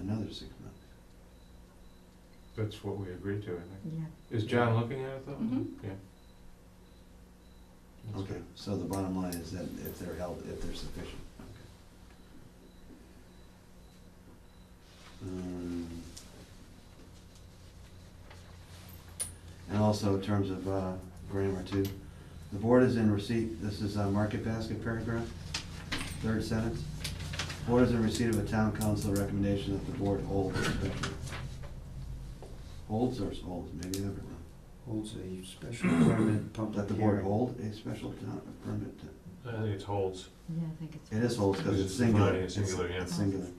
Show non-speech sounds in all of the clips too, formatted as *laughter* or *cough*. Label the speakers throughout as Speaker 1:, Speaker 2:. Speaker 1: another six months.
Speaker 2: That's what we agreed to, I think.
Speaker 3: Yeah.
Speaker 2: Is John looking at it though?
Speaker 4: Mhm.
Speaker 2: Yeah. That's
Speaker 1: Okay,
Speaker 2: good.
Speaker 1: so the bottom line is that if they're held, if they're sufficient, okay. Um, And also in terms of uh, grammar too, the board is in receipt, this is a market basket paragraph, third sentence. Board is in receipt of a town council recommendation that the board hold a special. Holds or holds, maybe never know.
Speaker 5: holds a special permit public hearing.
Speaker 1: Let the board
Speaker 5: *laughs*
Speaker 1: hold a special town permit. to-
Speaker 2: I think it holds.
Speaker 3: Yeah, I think it's.
Speaker 1: It is holds because it's
Speaker 2: It's
Speaker 1: singular.
Speaker 2: defining as singular, yeah.
Speaker 1: It's singular.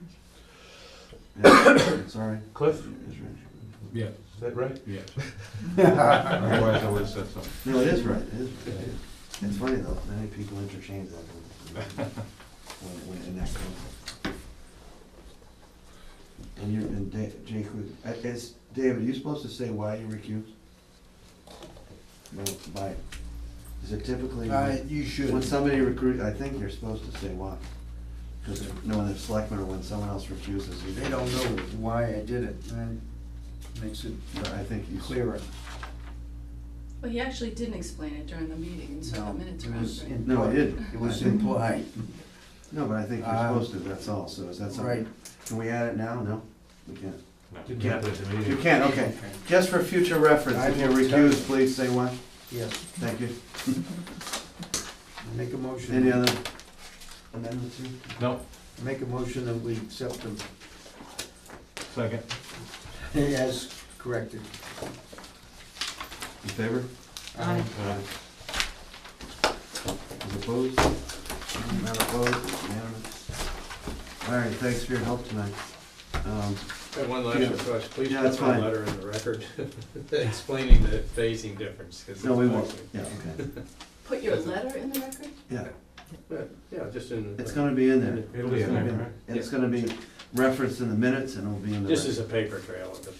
Speaker 1: Yeah, *coughs* Sorry.
Speaker 2: Cliff,
Speaker 1: It's right.
Speaker 6: Yeah,
Speaker 2: is that right?
Speaker 6: yeah.
Speaker 1: *laughs*
Speaker 2: Otherwise I would have said something.
Speaker 1: No, it is right, it is right. It's funny though, I think people interchange that when, when- when in that context. And you're, and Da- Jake, was- I- it's, David, are you supposed to say why you recused? No, by, is it typically?
Speaker 5: Uh, you should.
Speaker 1: When somebody recruit, I think you're supposed to say why. Because knowing the selectmen or when someone else refuses, you.
Speaker 5: They don't know why I did it, and it makes it
Speaker 1: But I think you.
Speaker 5: clearer.
Speaker 4: Well, he actually didn't explain it during the meeting, so the
Speaker 5: No,
Speaker 4: minutes
Speaker 5: it
Speaker 4: were
Speaker 5: was
Speaker 4: accurate.
Speaker 5: implied.
Speaker 1: No, I did.
Speaker 5: It was implied,
Speaker 1: No, but I think you're
Speaker 5: Uh,
Speaker 1: supposed to, that's all, so is that
Speaker 5: right.
Speaker 1: something? Can we add it now? No? We can't.
Speaker 2: No,
Speaker 5: You
Speaker 2: not at the meeting.
Speaker 1: You can, okay. Just for future reference,
Speaker 5: I
Speaker 1: if you're
Speaker 5: will tell-
Speaker 1: recused, please say why.
Speaker 5: Yes,
Speaker 1: Thank you.
Speaker 5: make a motion.
Speaker 1: Any other amendments? here?
Speaker 2: No,
Speaker 5: Make a motion that we accept them *laughs*
Speaker 2: second.
Speaker 5: as corrected.
Speaker 1: In favor?
Speaker 5: Uh-huh.
Speaker 3: Aye.
Speaker 2: Uh,
Speaker 1: Is opposed? Not opposed, unanimous. All right, thanks for your help tonight. Um,
Speaker 7: I have one
Speaker 1: Yeah.
Speaker 7: last request, please
Speaker 1: Yeah, that's
Speaker 7: put my
Speaker 1: fine.
Speaker 7: letter in the record *laughs* explaining the phasing difference, because it's.
Speaker 1: No, we won't.
Speaker 7: actually-
Speaker 1: Yeah, okay.
Speaker 4: Put your letter in the record?
Speaker 1: Yeah,
Speaker 7: Yeah, Yeah, just in.
Speaker 1: it's gonna be in there.
Speaker 2: It'll be
Speaker 1: It's
Speaker 2: in
Speaker 1: gonna
Speaker 2: there,
Speaker 1: be
Speaker 2: right?
Speaker 1: It's gonna be referenced in the minutes and it'll be in the.
Speaker 7: This is a paper trail of the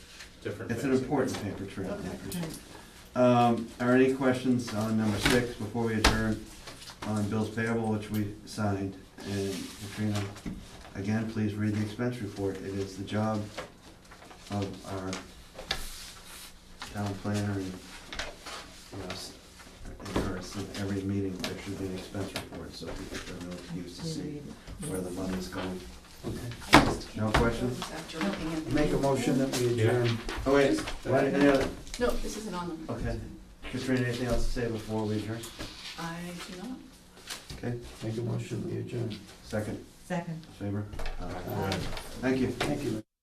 Speaker 7: different.
Speaker 1: It's an
Speaker 7: phasing.
Speaker 1: important paper trail, I appreciate
Speaker 3: Okay.
Speaker 1: it. Um, are any questions on number six before we adjourn on bills payable, which we signed? And Katrina, again, please read the expense report. It is the job of our town planner and, you know, s- and her, so every meeting, there should be an expense report, so people have no excuse to see where the money's going.
Speaker 4: I just can't
Speaker 1: No questions?
Speaker 4: remember After looking at the.
Speaker 5: Make a motion that we adjourn.
Speaker 1: Oh, wait, wait, any other-
Speaker 4: No, this isn't on them.
Speaker 1: Okay. Katrina, anything else to say before we adjourn?
Speaker 4: I do not.
Speaker 1: Okay,
Speaker 5: Make a motion, we adjourn.
Speaker 1: second,
Speaker 3: Second.
Speaker 1: favor? All right.
Speaker 5: Aye.
Speaker 1: Thank you.
Speaker 5: Thank you.